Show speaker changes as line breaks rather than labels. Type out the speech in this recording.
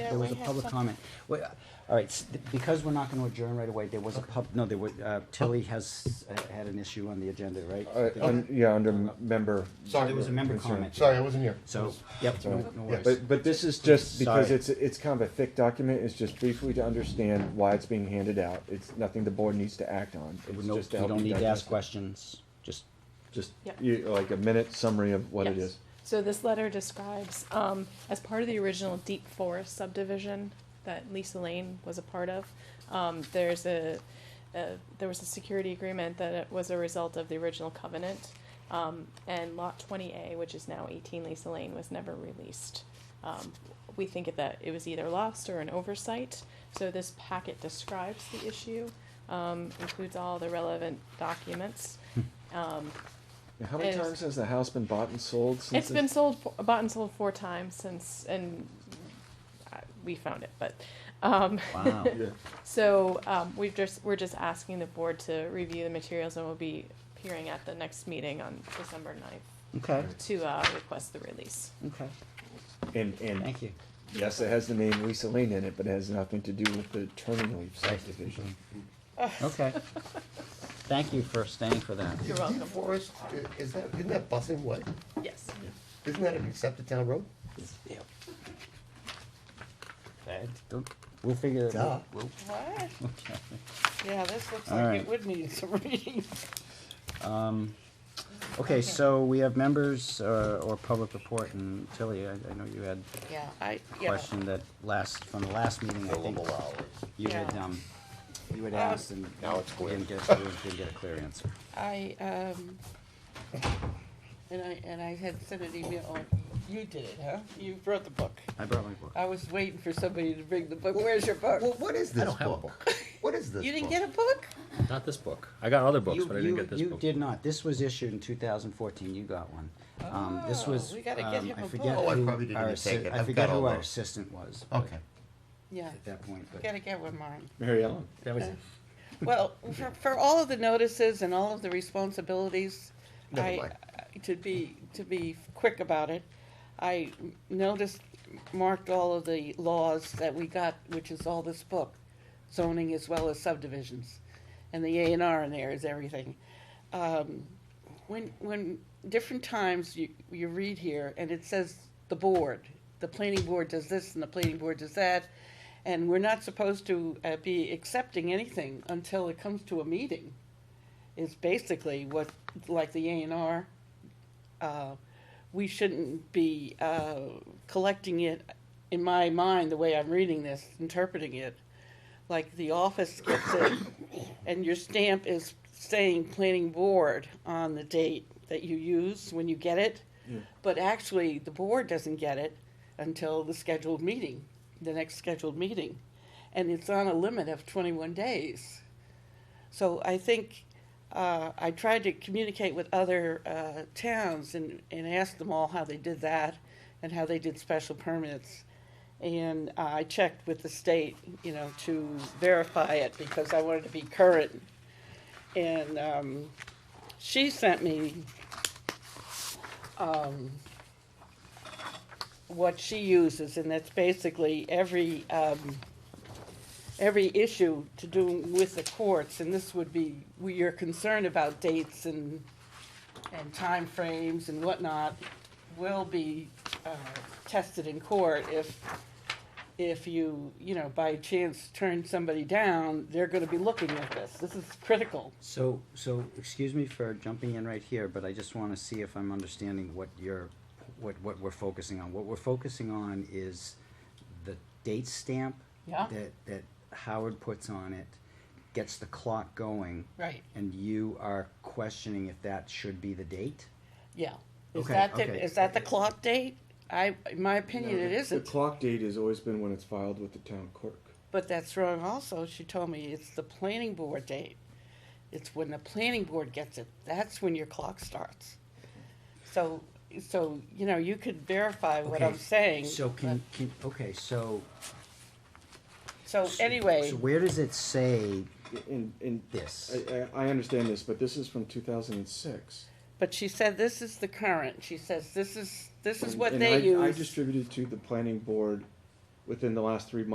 there was a
might have
public
some-
comment. Wait, uh, All right, s- th- because we're not gonna adjourn right away, there was a pub, no, there was, uh, Tilly has, uh, had an issue on the agenda, right?
Uh, un- Yeah, under member.
Sorry, there was a member
concern.
comment.
Sorry, I wasn't here.
So, yep, no no
Yeah,
worries.
But, but this is just because
Sorry.
it's, it's kind of a thick document, it's just briefly to understand why it's being handed out. It's nothing the board needs to act on. It's
No, You
just to help
don't
you
need to
digest
ask
it.
questions, just,
Just,
Yep.
you, like a minute summary of what it
Yes.
is.
So this letter describes, um, as part of the original Deep Forest subdivision that Lisa Lane was a part of, um, there's a, a, there was a security agreement that it was a result of the original covenant. Um, and lot twenty A, which is now eighteen Lisa Lane, was never released. Um, we think that it was either lost or an oversight, so this packet describes the issue, um, includes all the relevant documents.
Hmm.
Um,
Now, How many
It's-
times has the house been bought and sold since?
it's been sold, fo- bought and sold four times since, and uh, we found it, but, um,
wow.
Yeah.
so, um, we've just, we're just asking the board to review the materials and we'll be appearing at the next meeting on December ninth
Okay,
to, uh, request the release.
okay,
And, and,
thank you.
yes, it has the name Lisa Lane in it, but it has nothing to do with the Turning Leaf subdivision.
Okay. Thank you for staying for that.
You're welcome.
Forest, i- is that, isn't that busing way?
Yes.
Isn't that an accepted town road?
Yep. Don't- We'll figure it
Duh.
out. We'll-
What?
Okay.
Yeah, this looks
All
like
right.
it would need some reading.
Um, okay, so we have members uh, or public report, and Tilly, I, I know you had
Yeah, I,
a
yeah.
question that last, from the last meeting, I think. You had,
Yeah.
um, you had
Um,
asked and.
Now it's clear.
Didn't get, you didn't get a clear answer.
I, um, and I, and I had sent an email, on you did it, huh? You wrote the book.
I brought my book.
I was waiting for somebody to bring the book. Where's your book?
Well, what is this
don't have a
book? What is this?
You didn't
book?
get a book?
Not this book. I got other books,
You-
but I didn't
you-
get this
You
book.
did not, this was issued in two thousand fourteen, you got one. Um, this
Oh,
was,
we gotta get
um,
him
I
a
forget
book.
Oh, I
who
probably didn't
our
even take
assi-
it.
I
I've
forget
got
who
all
our
those.
assistant was. but-
Okay.
Yeah,
At that point, but.
gotta get one mine.
Mary Ellen?
That was it.
Well, for, for all of the notices and all of the responsibilities,
Never
I, uh,
mind.
to be, to be quick about it, I noticed, marked all of the laws that we got, which is all this book, zoning as well as subdivisions. And the A and R in there is everything. Um, When, when, different times you, you read here, and it says the board, the planning board does this and the planning board does that, and we're not supposed to uh, be accepting anything until it comes to a meeting, is basically what, like the A and R. uh, We shouldn't be uh, collecting it, in my mind, the way I'm reading this, interpreting it, like the office gets it, and your stamp is saying planning board on the date that you use when you get it. But actually, the board doesn't get it until the scheduled meeting, the next scheduled meeting. And it's on a limit of twenty-one days. So I think, uh, I tried to communicate with other, uh, towns and, and asked them all how they did that and how they did special permits. And uh, I checked with the state, you know, to verify it because I wanted to be current. And, um, she sent me, um, what she uses, and that's basically every, um, every issue to do with the courts, and this would be, we- you're concerned about dates and, and timeframes and whatnot, will be, uh, tested in court if, if you, you know, by chance turn somebody down, they're gonna be looking at this, this is critical.
So, so, excuse me for jumping in right here, but I just wanna see if I'm understanding what you're, what, what we're focusing on. What we're focusing on is the date stamp
Yeah.
that, that Howard puts on it, gets the clock going.
Right.
And you are questioning if that should be the date?
Yeah. Is
Okay,
that the-
okay.
is that the clock date? I, in my opinion, it
The
isn't,
clock date has always been when it's filed with the town clerk.
but that's wrong also, she told me it's the planning board date. It's when the planning board gets it, that's when your clock starts. So, so, you know, you could verify what I'm
Okay,
saying.
So can, can, okay, so.
So anyway,
So where does it say
In, in,
this?
I, I, I understand this, but this is from two thousand and six.
but she said this is the current, she says this is, this is what
And
they
I- I
use.
distributed to the planning board within the last three months